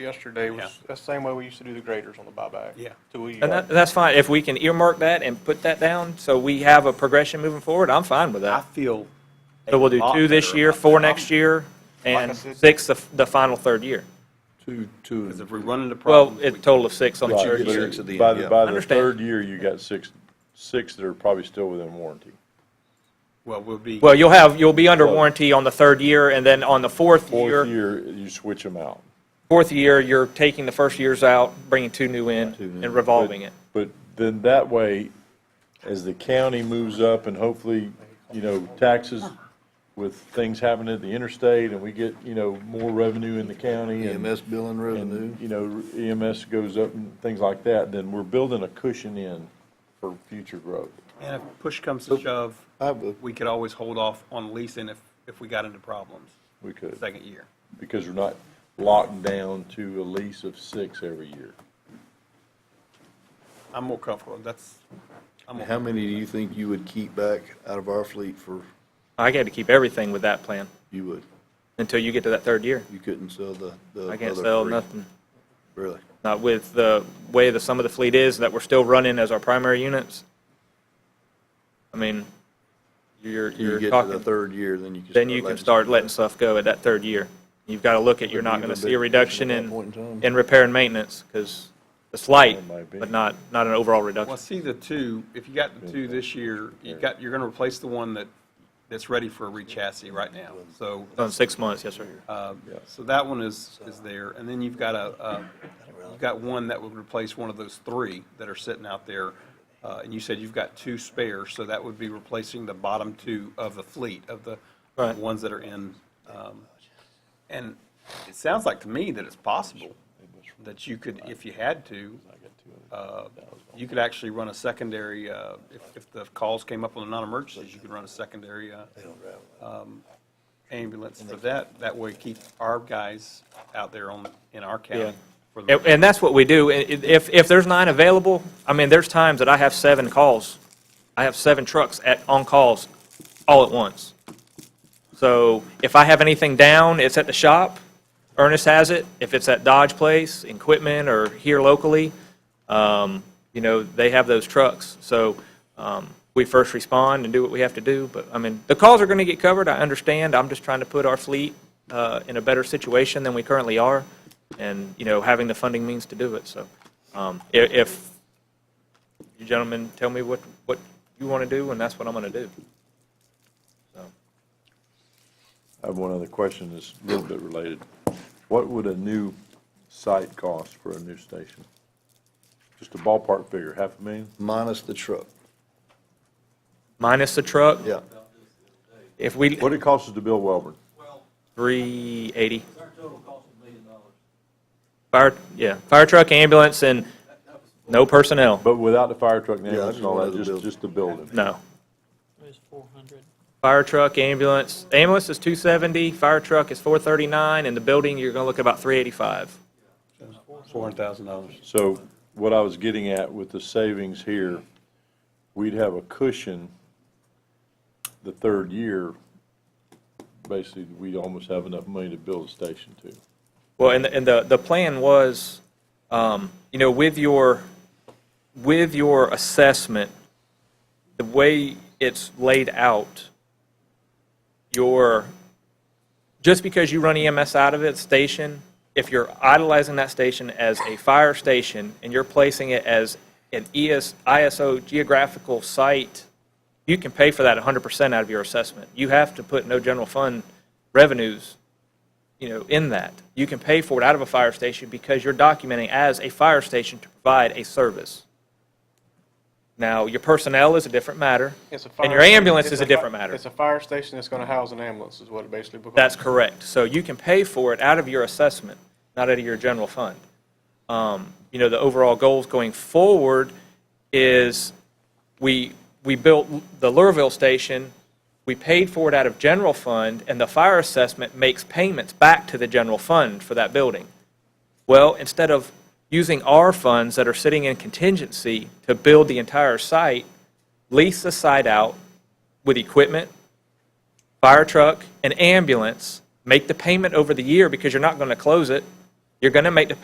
yesterday was, Yeah. that's the same way we used to do the graders on the buyback. Yeah. Till we, And that, that's fine, if we can earmark that and put that down, so we have a progression moving forward, I'm fine with I that. feel. So we'll a do lot two this better year, about four that. next year, Like I and said- six the, the final third year. Two, two. Because and- if we run into Well, problems. a we- total of six on the Right, third but year. six at the By end, the, yeah. by the Understand. third year, you got six, six that are probably still within warranty. Well, we'll be. Well, you'll have, you'll be under Well- warranty on the third year, and then on the fourth Fourth year, year, you switch them out. fourth year, you're taking the first years out, bringing two new in, and revolving it. But then that way, as the county moves up and hopefully, you know, taxes with things happening at the interstate and we get, you know, more revenue in the county and. EMS E billing revenue. and, you know, EMS goes up and things like that, then we're building a cushion in for future growth. And if push comes to shove, I have a- we could always hold off on leasing if, if we got into problems We could, second year. because we're not locked down to a lease of six every year. I'm more comfortable. That's, I'm, more- How many do you think you would keep back out of our fleet for, I got to keep everything with that plan you would, until you get to that third year. you couldn't sell the, the I can't other sell three? nothing. Really? Not with the way the sum of the fleet is, that we're still running as our primary units. I mean, you're, You you're get to the talking, third year, then you can. then you can letting start stuff letting go. stuff go at that third year. You've got to look at, you're not Wouldn't going to be a see big a reduction at that in, point in time. in repair and maintenance, because it's light, It might be. but not, not an overall well, reduction. see the two, if you got the two this year, you got, you're going to replace the one that, that's ready for a re-chassis right now. So, On six months, yes, sir. uh, so that one is, is there. And then you've got a, uh, you've got one that would replace one of those three that are sitting out there. Uh, And you said you've got two spares, so that would be replacing the bottom two of the fleet, of the Right. ones that are in. um, And it sounds like to me that it's possible that you could, if you had to, uh, you could actually run a secondary, uh, if, if the calls came up on the non-emergencies, you could run a secondary uh, um, ambulance for that. That way keep our guys out there on, in our Yeah. county. for the- And, and that's what we do. I- i- If, if there's nine available, I mean, there's times that I have seven calls. I have seven trucks at, on calls all at once. So if I have anything down, it's at the shop, Ernest has it. If it's at Dodge Place, in Quitman, or here locally, um, you know, they have those trucks. So, um, we first respond and do what we have to do, but, I mean, the calls are gonna get covered, I understand. I'm just trying to put our fleet, uh, in a better situation than we currently are, and, you know, having the funding means to do it, so. Um, i- if you gentlemen tell me what, what you wanna do, and that's what I'm gonna do. I have one other question that's a little bit related. What would a new site cost for a new station? Just a ballpark figure, half a million? Minus the truck, Minus the truck, yeah. if we, What it costs us to build Welborn? three eighty. Fire, yeah, fire truck, ambulance, and no personnel, But without the fire truck and Yeah, ambulance and all that, just just, build- just the building. no. It was 400. Fire truck, ambulance, ambulance is two seventy, fire truck is four thirty-nine, and the building, you're gonna look at about three eighty-five. $400,000. So what I was getting at with the savings here, we'd have a cushion the third year. Basically, we'd almost have enough money to build a station too. Well, and, the- and the, the plan was, um, you know, with your, with your assessment, the way it's laid out, your, just because you run EMS out of it, station, if you're idolizing that station as a fire station and you're placing it as an E ES, ISO geographical site, you can pay for that 100% out of your assessment. You have to put no general fund revenues you know, in that. You can pay for it out of a fire station because you're documenting as a fire station to provide a service. Now, your personnel is a different matter, It's a fire- and your ambulance it's is a fi- different matter. It's a fire station that's gonna house an ambulance is what it basically becomes. That's correct. So you can pay for it out of your assessment, not out of your general fund. Um, You know, the overall goals going forward is we, we built the Lurville station, we paid for it out of general fund, and the fire assessment makes payments back to the general fund for that building. Well, instead of using our funds that are sitting in contingency to build the entire site, lease the site out with equipment, fire truck, an ambulance, make the payment over the year because you're not going to close it, You're going to make the